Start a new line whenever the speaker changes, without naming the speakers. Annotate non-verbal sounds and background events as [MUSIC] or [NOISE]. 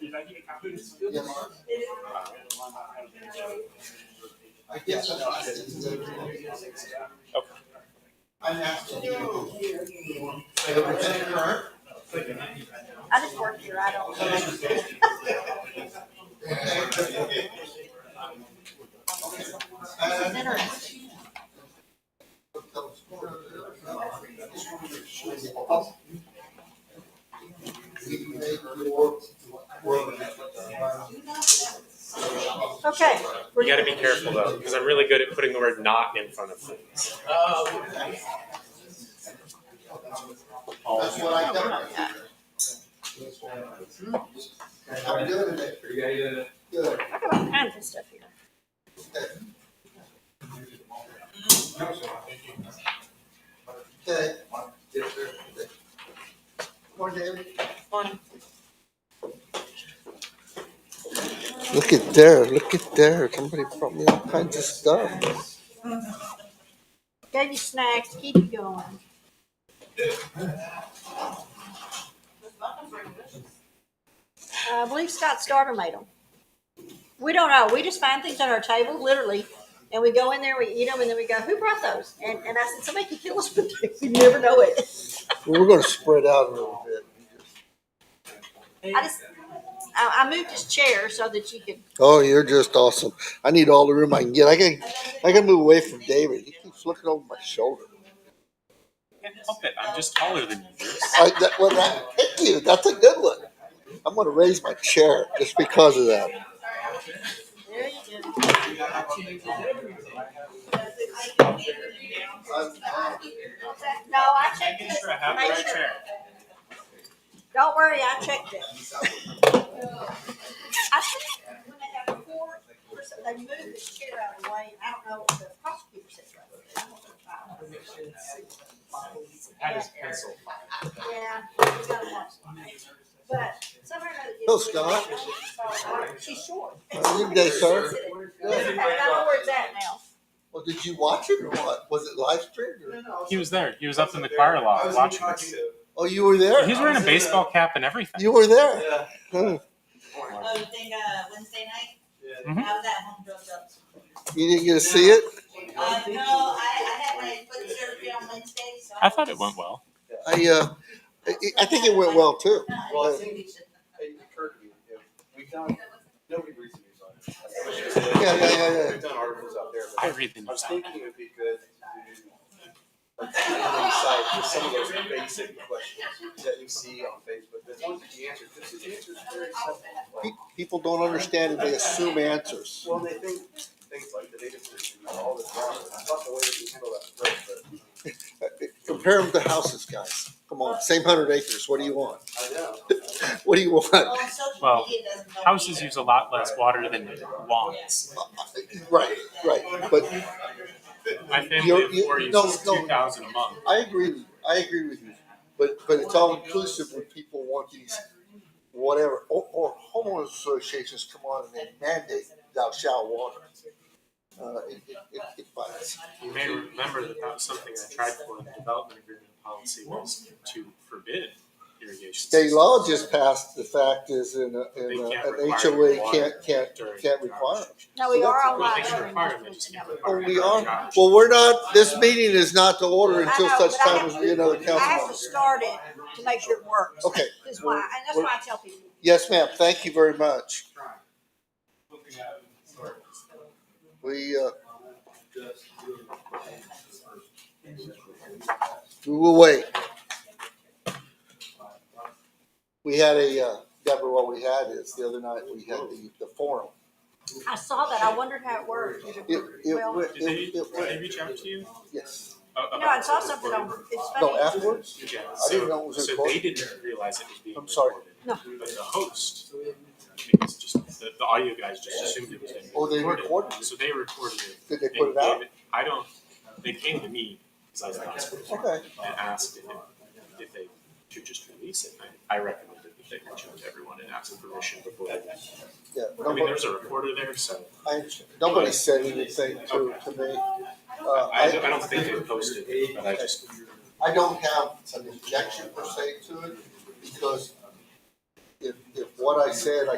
did I get a copy? Yes.
I guess that's what I said today. I'm asking you. So the percentage current,
I just work here, I don't.
okay. And-
Interesting.
We can make your work.
Okay.
You gotta be careful though, because I'm really good at putting the word not in front of things.
That's what I got. I'm doing it. Good.
Talk about kinds of stuff here.
Okay. Morning, David.
Look at there, look at there. Somebody brought me all kinds of stuff.
Gave you snacks, keep you going. Uh, I believe Scott Starter made them. We don't know, we just find things on our table, literally, and we go in there, we eat them, and then we go, who brought those? And, and I said, somebody could kill us, but [LAUGHS] we never know it.
We were gonna spread out a little bit.
I just, I, I moved his chair so that you could,
Oh, you're just awesome. I need all the room I can get. I gotta, I gotta move away from David. He keeps looking over my shoulder.
Can't help it, I'm just taller than you.
I, that, well, that, thank you. That's a good one. I'm gonna raise my chair just because of that.
there you go. No, I checked
Making
it,
sure I have the
Make
right
sure.
chair.
Don't worry, I checked it. I think when they have four, person- they move this chair out of the way, I don't know what the prosecutor said.
That is pencil.
Yeah, we gotta watch. But somehow or another.
Hello, Scott.
She's short.
How are you today, sir?
Doesn't matter, I know where it's at now.
Well, did you watch it or what? Was it live streamed? Or?
He was there, he was up in the choir loft watching us.
Oh, you were there.
He's wearing a baseball cap and everything.
You were there. Hmm. Huh.
Oh, you think, uh, Wednesday night?
Mhm.
I was at home dressed up.
You didn't get to see it.
Uh, no, I, I had my foot surgery on Wednesday, so.
I thought it went well.
I, uh, I, I think it went well too.
No, I
Well,
didn't do shit.
It occurred to me, if we found, nobody reads the news on it.
Yeah, yeah, yeah, yeah.
We've done articles out there,
I
but
read the
I was
news.
thinking it'd be good to do. Like, insight to some of those basic questions that you see on Facebook, the ones that you answer, this is the answers are very simple. Like,
Pe- People don't understand it. They assume answers.
Well, they think things like the data system and all this, I thought the way that we handle that first, but
Compare them to houses, guys. Come on, same hundred acres. What do you want?
I know.
What do you want? [LAUGHS]
Oh, and social
Well,
media doesn't help
Houses
either.
use a lot less water than lawns.
Right, right. But
My family
You're-
of
you-
four
no,
uses
no.
two thousand a month.
I agree. With, I agree with you. But but it's all inclusive when people want these whatever or, or homeowners associations come on and they mandate thou shalt water. Uh, it, it, it, it bites.
You may remember that that was something I tried for in the development agreement policy was to forbid irrigation.
State
systems
law just passed the fact is in a, in
They
a,
can't
an
require
HOA
water.
can't can't
during
can't require it.
No, we are on live.
Well, they can
stream.
require them, they just can't
Oh,
require it.
we are, well, we're not, this meeting is not to order
I
until
know,
such
but I
time
have
as we get another
I have to
council.
start it to make sure it works.
Okay,
That's why, and that's why I tell people.
yes, ma'am, thank you very much. We, uh, we will wait. We had a, uh, Deborah, what we had is, the other night, we had the, the forum.
I saw that, I wondered how it worked.
It, it,
Well-
went-
Did
it,
they,
it,
did they
went-
reach out to you?
yes,
a-
You know, I
about
saw
the
something
recording?
on, it's funny.
no, afterwards,
Yeah,
I didn't know it
so,
was
so they
recorded.
didn't realize it was being
I'm sorry.
recorded.
No.
But the host, because just, the, the audio guys just assumed it was being
Oh, they recorded
So they recorded it.
did they put it out?
gave I don't, they came to me, because I was the last person,
Okay.
and asked if, it- if they should just release it. I, I recommended that they reach out to everyone and ask for permission before they,
Yeah,
I mean,
nobody,
there's a recorder there, so
I, nobody said anything to, to me. Uh,
I, I don't think they posted it, but I just,
I don't have an objection per se to it, because if, if what I said, I